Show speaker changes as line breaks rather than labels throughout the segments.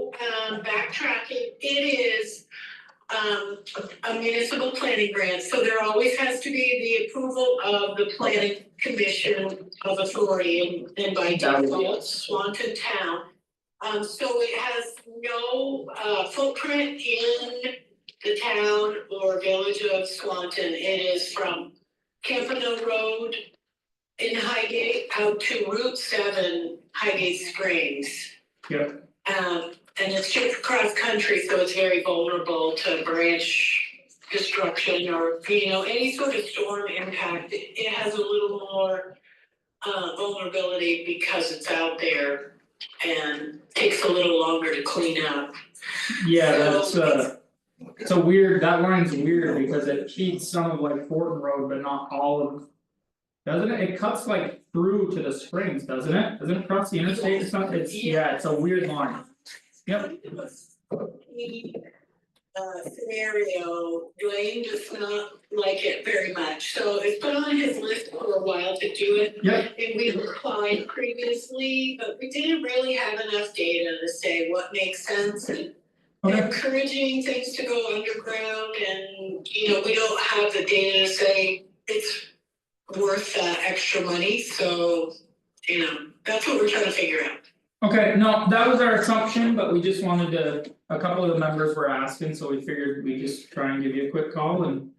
um, backtracking, it is um, a municipal planning grant, so there always has to be the approval of the planning commission of authority and- and by default, Swanton Town. Um, so it has no, uh, footprint in the town or village of Swanton. It is from Campanile Road in Highgate out to Route seven, Highgate Springs.
Yeah.
Um, and it's just cross country, so it's very vulnerable to branch destruction or, you know, any sort of storm impact. It it has a little more uh vulnerability because it's out there and takes a little longer to clean up.
Yeah,
So
that's uh, it's a weird, that line's weird because it feeds some of like Fortin Road, but not all of. Doesn't it, it cuts like through to the springs, doesn't it, doesn't it cross the interstate or something, it's, yeah, it's a weird line, Yep.
The, Uh, scenario, Dwayne does not like it very much, so it's been on his list for a while to do it.
Yep.
And we applied previously, but we didn't really have enough data to say what makes sense and
okay,
encouraging things to go underground and, you know, we don't have the data to say it's worth that extra money, so, you know, that's what we're trying to figure out.
okay, no, that was our assumption, but we just wanted to, a couple of the members were asking, so we figured we just try and give you a quick call and.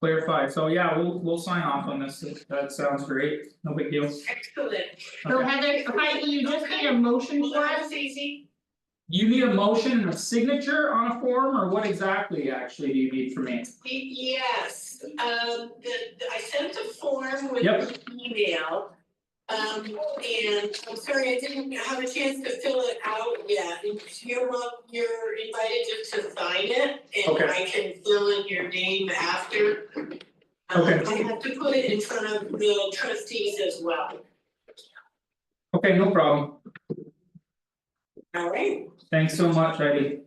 Clarify, so yeah, we'll we'll sign off on this, that sounds great, no big deal,
Excellent.
So
okay,
Heather, if I, you just need a motion
Well,
for
that
us,
was easy.
you need a motion and a signature on a form, or what exactly actually do you need from me?
Y- Yes, um, the, the- I sent a form with
Yep.
the email. Um, and I'm sorry, I didn't have a chance to fill it out yet. You're, wel- you're invited just to sign it and
Okay.
I can fill in your name after. Um,
Okay.
I have to put it in front of the trustees as well.
Okay, no problem,
All right,
thanks so much, Heidi.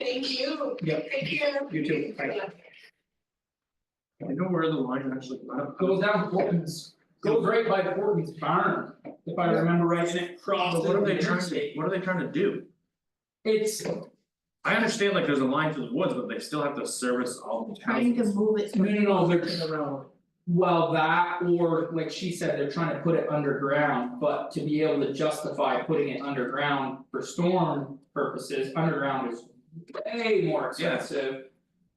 thank you.
Yep.
Take care.
You too. Bye.
Yeah.
I know where the line actually went up.
Goes down Portland's, goes right by Portland's barn, if I remember right, and it
But
crosses
what are they
the
trying to,
interstate.
what are they trying to do?
It's,
I understand like there's a line through the woods, but they still have to service all the
trying to
houses.
move it.
no, no, no, they're turning around. Well, that or like she said, they're trying to put it underground, but to be able to justify putting it underground for storm purposes, underground is way more
Yeah.
expensive.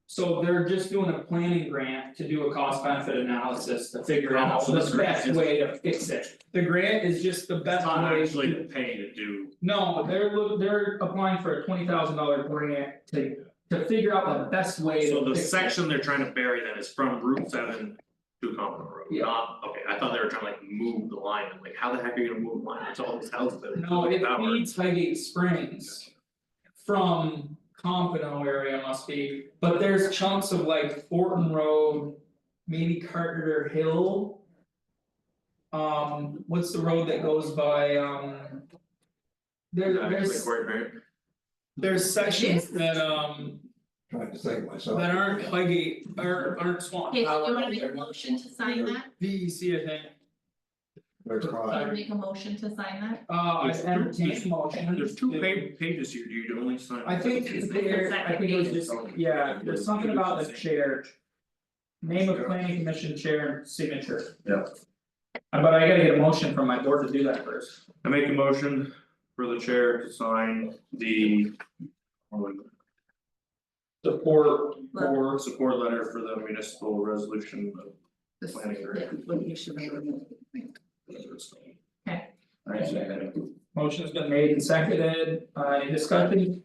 So they're just doing a planning grant to do a cost benefit analysis to figure
How
out
much this
the
grant
best
is.
way to fix it. The grant is just the best way to.
Not actually paying to do,
No, they're look, they're applying for a twenty thousand dollar grant to to figure out the best way
so
to
the
fix it.
section they're trying to bury then is from Route seven to Common Road,
Yeah.
not, okay, I thought they were trying to like move the line, I'm like, how the heck are you gonna move the line, it's all these houses that are.
No, it
powered.
feeds Highgate Springs. From Compano area must be, but there's chunks of like Fortin Road, maybe Carter Hill. Um, what's the road that goes by um? There
Actually,
there's
Cory Perry.
there's sections that um
trying to think myself.
that aren't Highgate, aren't aren't Swan
Okay, so
Power.
you wanna make a motion to sign that,
V E C, I think.
They're crying.
make a motion to sign that,
Uh, I
There's two-
entertain motion.
There's two pa- pages here, you only sign.
I think
It's the
there, I
second
think it was
page.
just, yeah, there's something about the chair. Name of planning commission chair and signature.
Yeah.
Uh, But I gotta get a motion from my board to do that first.
I make a motion for the chair to sign the.
Support
Or support letter for the municipal resolution of planning grant.
Okay.
I second
motion's been made and seconded, uh, any discussion?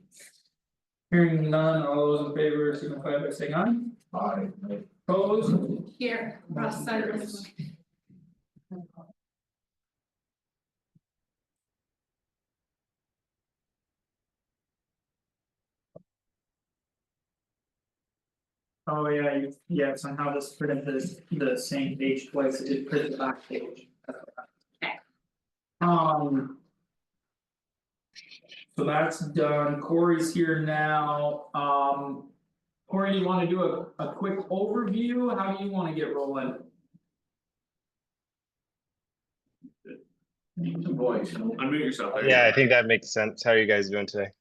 Hearing none, all those in favor signify by saying aye.
Aye.
Opposed,
here, Ross sign this one.
Oh, yeah, you, yeah, somehow this printed the the same page twice, it did print the back page. Um. So that's done, Corey's here now, um. Corey, you wanna do a a quick overview, how do you wanna get rolling?
it. Unmute yourself. there you go.
Yeah, I think that makes sense. How are you guys doing today?